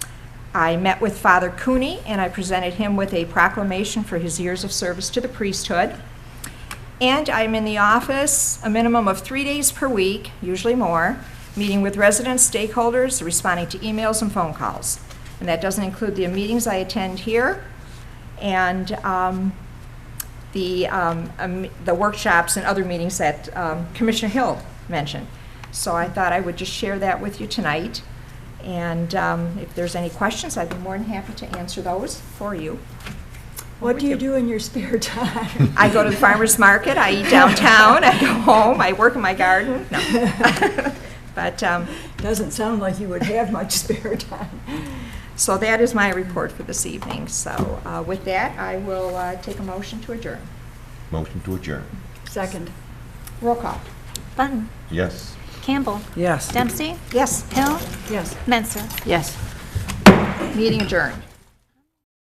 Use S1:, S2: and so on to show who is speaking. S1: I met with Father Cooney, and I presented him with a proclamation for his years of service to the priesthood. And I'm in the office a minimum of three days per week, usually more, meeting with residents, stakeholders, responding to emails and phone calls. And that doesn't include the meetings I attend here and um, the, um, um, the workshops and other meetings that um, Commissioner Hill mentioned. So I thought I would just share that with you tonight. And um, if there's any questions, I'd be more than happy to answer those for you.
S2: What do you do in your spare time?
S1: I go to the farmer's market, I eat downtown, I go home, I work in my garden. No. But, um,
S2: Doesn't sound like you would have much spare time.
S1: so that is my report for this evening. So uh, with that, I will uh, take a motion to adjourn.
S3: Motion to adjourn.
S2: Second.
S1: Roll call.
S4: Button.
S3: Yes.
S4: Campbell.
S5: Yes.
S4: Dempsey.
S1: Yes,
S4: Hill.
S2: Yes.
S4: Menser.
S5: Yes.
S1: meeting adjourned.